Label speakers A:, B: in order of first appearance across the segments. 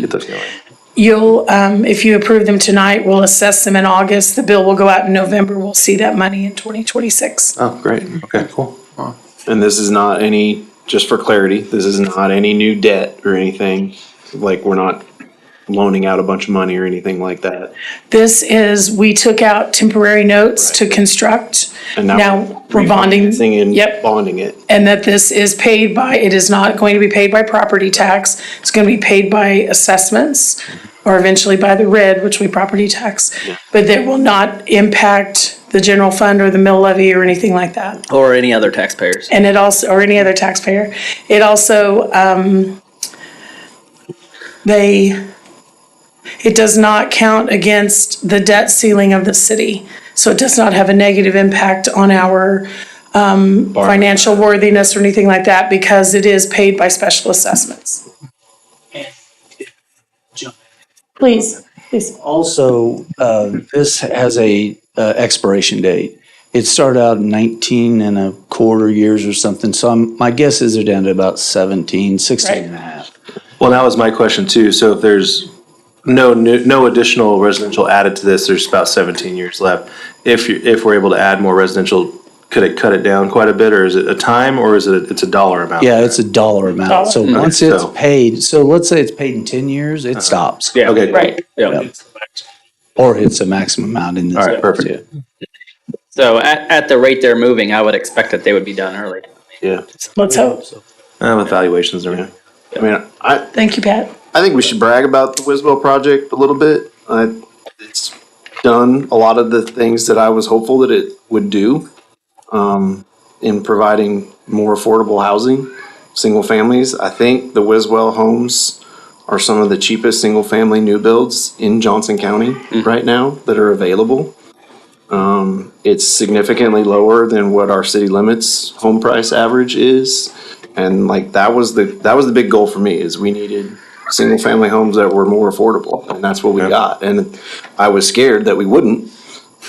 A: get those going.
B: You'll, um, if you approve them tonight, we'll assess them in August. The bill will go out in November. We'll see that money in twenty twenty-six.
A: Oh, great, okay, cool. And this is not any, just for clarity, this is not any new debt or anything, like, we're not loaning out a bunch of money or anything like that.
B: This is, we took out temporary notes to construct.
A: And
B: Now we're bonding.
A: refinancing and
B: Yep.
A: Bonding it.
B: And that this is paid by, it is not going to be paid by property tax. It's gonna be paid by assessments or eventually by the red, which we property tax. But that will not impact the general fund or the mill levy or anything like that.
C: or any other taxpayers.
B: And it also, or any other taxpayer, it also, um, they, it does not count against the debt ceiling of the city. So it does not have a negative impact on our, um, financial worthiness or anything like that because it is paid by special assessments. Please, please.
D: Also, uh, this has a uh, expiration date. It started out 19 and a quarter years or something, so I'm- my guess is they're down to about 17, 16 and a half.
A: Well, that was my question too, so if there's no, new- no additional residential added to this, there's about seventeen years left. If, you- if we're able to add more residential, could it cut it down quite a bit, or is it a time, or is it, it's a dollar amount?
D: Yeah, it's a dollar amount, so
A: Dollar.
D: once
A: Okay,
D: it's
A: so- Uh-huh.
D: paid, so let's say it's paid in 10 years, it stops.
A: Okay.
B: Right.
C: Yeah.
D: Or hits a maximum amount in this.
A: All right, perfect.
C: So at, at the rate they're moving, I would expect that they would be done early.
A: Yeah,
B: Let's hope.
A: Uh, with valuations, I mean, I mean, I,
B: Thank you, Pat.
A: I think we should brag about the Wiswell project a little bit. Uh, it's done a lot of the things that I was hopeful that it would do um, in providing more affordable housing, single families. I think the Wiswell homes are some of the cheapest single family new builds in Johnson County right now that are available. Um, it's significantly lower than what our city limits home price average is. And like that was the that was the big goal for me is we needed single family homes that were more affordable, and that's what we got. And I was scared that we wouldn't.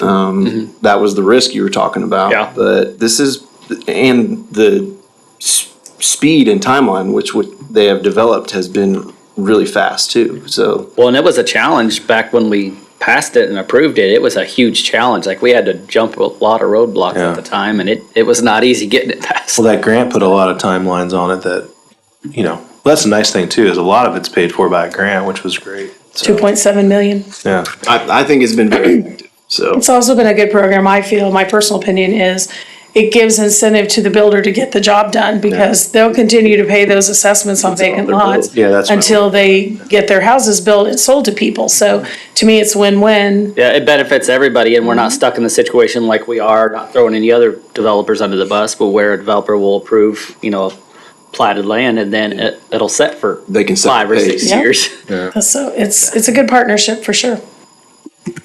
A: Um, That was the risk you were talking about.
C: Yeah.
A: But this is and the s- speed and timeline which would they have developed has been really fast too. So
C: Well, and it was a challenge back when we passed it and approved it. It was a huge challenge. Like we had to jump a lot of roadblocks
A: Yeah.
C: at the time, and it, it was not easy getting it passed.
E: Well, that grant put a lot of timelines on it that, you know, that's a nice thing too, is a lot of it's paid for by a grant, which was great.
B: Two point seven million.
E: Yeah.
A: I, I think it's been very effective. So
B: It's also been a good program, I feel, my personal opinion is, it gives incentive to the builder to get the job done because they'll continue to pay those assessments on vacant
A: their
B: lots
A: bills. Yeah, that's what-
B: until they get their houses built and sold to people. So to me, it's win-win.
C: Yeah, it benefits everybody, and we're
B: Mm-hmm.
C: not stuck in the situation like we are, not throwing any other developers under the bus, but where a developer will approve, you know, platted land, and then it, it'll set for
A: they can set
C: five or
A: the
C: six
A: pace.
B: Yeah.
C: years.
B: So it's, it's a good partnership for sure.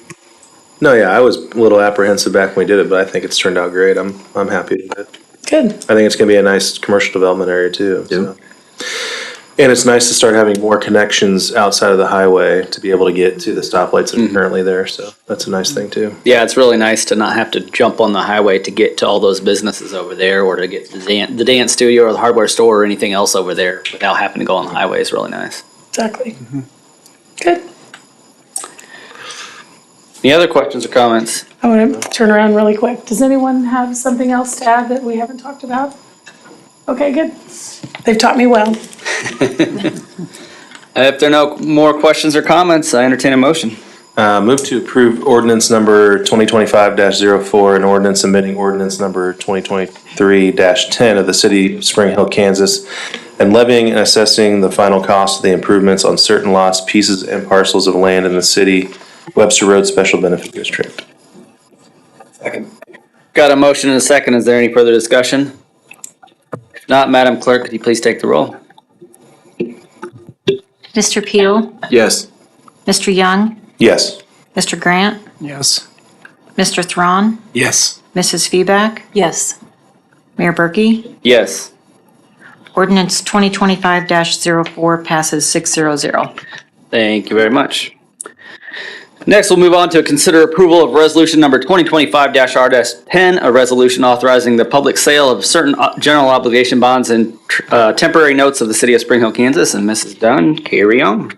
E: No, yeah, I was a little apprehensive back when we did it, but I think it's turned out great. I'm, I'm happy with it.
B: Good.
E: I think it's gonna be a nice commercial development area too. so. And it's nice to start having more connections outside of the highway to be able to get to the stoplights that are
A: Mm-hmm.
E: currently there, so that's a nice thing too.
C: Yeah, it's really nice to not have to jump on the highway to get to all those businesses over there or to get to the dance, the dance studio or the hardware store or anything else over there without having to go on the highway is really nice.
B: Exactly.
A: Mm-hmm.
B: Good.
C: Any other questions or comments?
B: I want to turn around really quick. Does anyone have something else to add that we haven't talked about? Okay, good. They've taught me well.
C: Uh, If there are no more questions or comments, I entertain a motion.
E: Uh, move to approve ordinance number twenty twenty-five 4 and ordinance amending ordinance number twenty twenty-three ten of the city of Spring Hill, Kansas, and levying and assessing the final cost of the improvements on certain lots, pieces, and parcels of land in the city Webster Road Special Benefit District.
C: Got a motion and a second. Is there any further discussion? If not, Madam Clerk, could you please take the roll?
F: Mr. Peel,
A: Yes.
F: Mr. Young,
E: Yes.
F: Mr. Grant,
G: Yes.
F: Mr. Thrawn,
G: Yes.
F: Mrs. Feback,
H: Yes.
F: Mayor Berkey.
C: Yes.
F: Ordinance 2025-04 passes 600.
C: Thank you very much. Next, we'll move on to consider approval of resolution number 2025-R-10, a resolution authorizing the public sale of certain o- general uh, obligation bonds and tr- uh, temporary notes of the city of Spring Hill, Kansas. And Mrs. Dunn, carry on.